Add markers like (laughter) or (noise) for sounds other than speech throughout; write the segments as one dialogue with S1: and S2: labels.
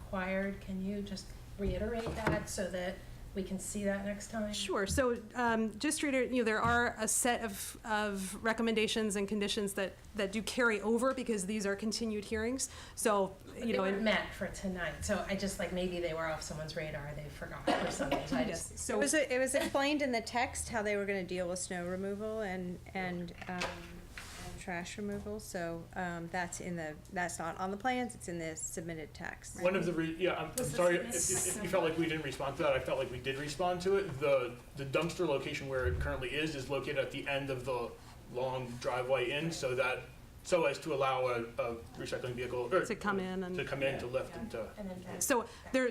S1: required, can you just reiterate that so that we can see that next time?
S2: Sure, so um, just to reiterate, you know, there are a set of, of recommendations and conditions that, that do carry over because these are continued hearings, so,
S1: But
S2: you
S1: They
S2: know.
S1: were
S2: and-
S1: met for tonight, so I just, like, maybe they were off someone's radar, they forgot
S3: (laughs)
S1: or something, so I
S2: Yes,
S1: just,
S3: It
S2: So,
S3: was, it was explained in the text how they were gonna deal with snow removal and, and, um, and trash removal, so, um, that's in the, that's not on the plans, it's in the submitted text.
S4: One of the, re- yeah, I'm, I'm
S5: Was this
S4: sorry, if,
S5: missed?
S4: if if you felt like we didn't respond to that, I felt like we did respond to it. The, the dumpster location where it currently is, is located at the end of the long driveway in, so that, so as to allow a, a recycling vehicle, or.
S2: To come in and-
S4: To come in, to lift and to,
S1: and then back.
S2: so there,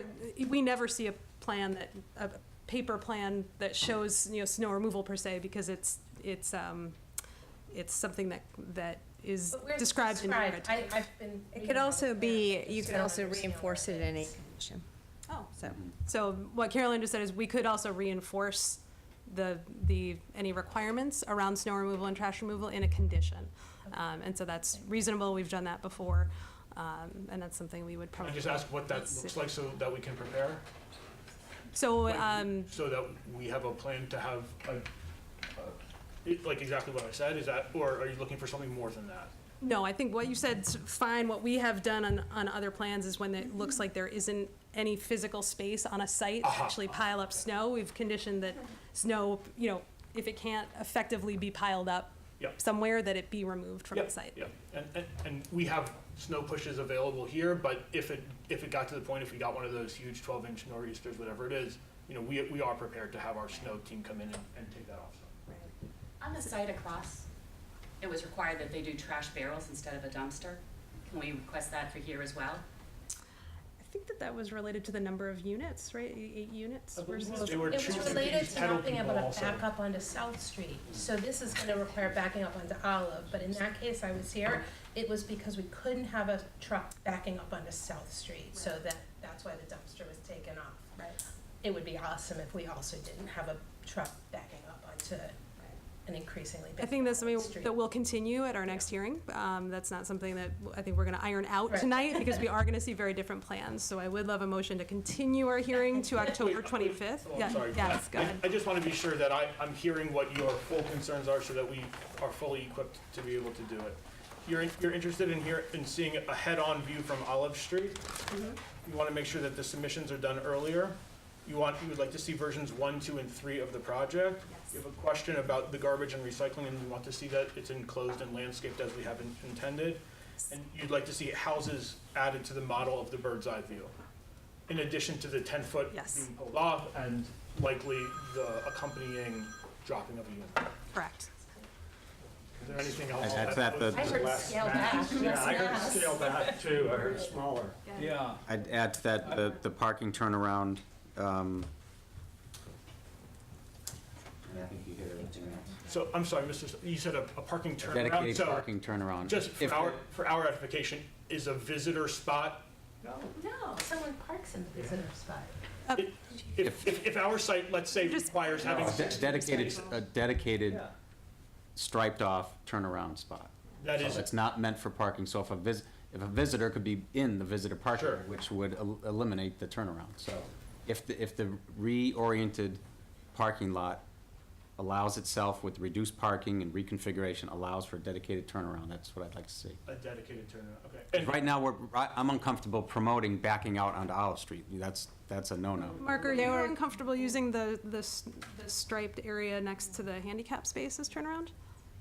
S2: we never see a plan that, a paper plan that shows, you know, snow removal per se, because it's, it's, um, it's something that, that is
S1: But where's
S2: described in.
S1: described?
S2: narrative.
S1: I, I've been.
S3: It
S1: reading
S3: could also
S1: about
S3: be,
S1: that.
S3: you
S1: Just
S3: could
S1: don't
S3: also
S1: understand
S3: reinforce
S1: what
S3: it in any
S1: is.
S3: condition. Oh. So,
S2: So what Carolyn just said is we could also reinforce the, the, any requirements around snow removal and trash removal in a condition. Um, and so that's reasonable, we've done that before, um, and that's something we would
S4: and
S2: probably.
S4: just ask what that looks like so that we can prepare,
S2: So,
S4: like,
S2: um,
S4: so that we have a plan to have a, a- it- like exactly what I said, is that, or are you looking for something more than that?
S2: no, I think what you said's fine, what we have done on, on other plans is when it looks like there isn't any physical space on a site to
S4: Aha.
S2: actually pile up snow, we've conditioned that snow, you know, if it can't effectively be piled up
S4: Yep.
S2: somewhere, that it be removed from the
S4: Yep,
S2: site.
S4: Yep, and, and, and we have snow pushes available here, but if it, if it got to the point, if we got one of those huge twelve inch nor'easters, whatever it is, you know, we, we are prepared to have our snow team come in and, and take that off.
S5: On the site across, it was required that they do trash barrels instead of a dumpster. Can we request that for here as well?
S2: I think that that was related to the number of units, right? E- Eight units?
S4: I
S2: were
S4: believe
S2: supposed-
S4: they were-
S1: It
S4: Choosing
S1: was
S4: to
S1: related
S4: use
S1: to
S4: pedal
S1: not being able
S4: people
S1: to
S4: also.
S1: back up onto South Street, so this is gonna require backing up onto Olive, but in that case, I was here, it was because we couldn't have a truck backing up onto South Street, so that, that's why the dumpster was taken off.
S5: Right.
S1: It would be awesome if we also didn't have a truck backing up onto an increasingly big
S2: I think that's something
S1: street.
S2: that will continue at our next hearing. Um, that's not something that I think we're gonna iron out
S1: Right.
S2: tonight because we are gonna see very different plans. So I would love a motion to continue our hearing to October
S4: Wait,
S2: twenty-fifth.
S4: oh, I'm sorry.
S2: Yes, go
S4: I-
S2: ahead.
S4: I just wanna be sure that I, I'm hearing what your full concerns are so that we are fully equipped to be able to do it. You're, in- you're interested in here, in seeing a head-on view from Olive Street?
S2: Mm-hmm.
S4: You wanna make sure that the submissions are done earlier? You want, you would like to see versions one, two, and three of the project? You have a question about the garbage and recycling, and you want to see that it's enclosed and landscaped as we have in- intended? And you'd like to see houses added to the model of the bird's eye view? in addition to the ten foot
S2: Yes.
S4: being pulled off and likely the accompanying dropping of a unit.
S2: Correct.
S4: Is there anything else?
S6: And that's at the-
S5: I heard scale back,
S7: Yeah, I heard
S5: less
S7: scale back too, I heard smaller.
S8: Yeah,
S6: I'd add to that, the, the parking turnaround, um, and I think you hit everything else.
S4: So, I'm sorry, Mr., S- you said a, a parking turnaround,
S6: Dedicated
S4: so
S6: parking turnaround.
S4: just
S6: If-
S4: for our, for our edification, is a visitor spot,
S1: No, someone parks in the visitor spot.
S4: if, if, if our site, let's say, requires having,
S6: de- Dedicated, a dedicated
S7: Yeah.
S6: striped off turnaround spot.
S4: that
S6: So
S4: is,
S6: It's not meant for parking, so if a vis, if a visitor could be in the visitor parking,
S4: Sure.
S6: area, which would el- eliminate the turnaround, so. If the, if the reoriented parking lot allows itself with reduced parking and reconfiguration, allows for dedicated turnaround, that's what I'd like to see.
S4: a dedicated turnaround, okay. And
S6: Right now, we're, I- I'm uncomfortable promoting backing out onto Olive Street. That's, that's a no-no.
S2: Mark, are you uncomfortable using the, the s- the striped area next to the handicap space as turnaround?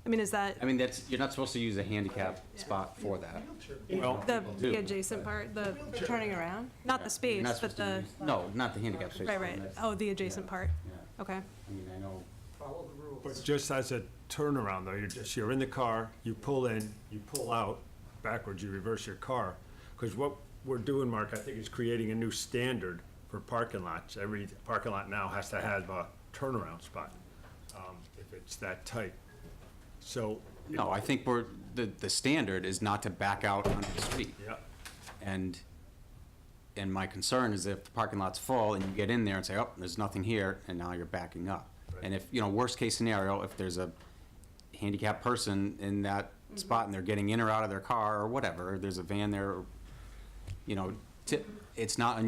S2: I mean, is that
S6: I mean, that's, you're not supposed to use a handicap spot for that.
S4: Well,
S2: the
S6: people do.
S2: the adjacent part, the,
S3: turning around?
S2: not the
S6: You're
S2: space,
S6: not
S2: but
S6: supposed to
S2: the,
S6: use- No, not the handicap space.
S2: right, right.
S6: That's-
S2: Oh, the adjacent part,
S6: yeah.
S2: okay.
S6: I mean, I know,
S7: Follow the rules. But just as a turnaround though, you're just, you're in the car, you pull in, you pull out, backwards, you reverse your car. Because what we're doing, Mark, I think is creating a new standard for parking lots. Every parking lot now has to have a turnaround spot, um, if it's that tight. So,
S6: no, I think we're, the, the standard is not to back out onto the street.
S7: yeah,
S6: And, and my concern is if the parking lot's full and you get in there and say, oh, there's nothing here, and now you're backing up. And if, you know, worst-case scenario, if there's a handicapped person in that spot and they're getting in or out of their car or whatever, there's a van there, you know, Ti- It's not unusual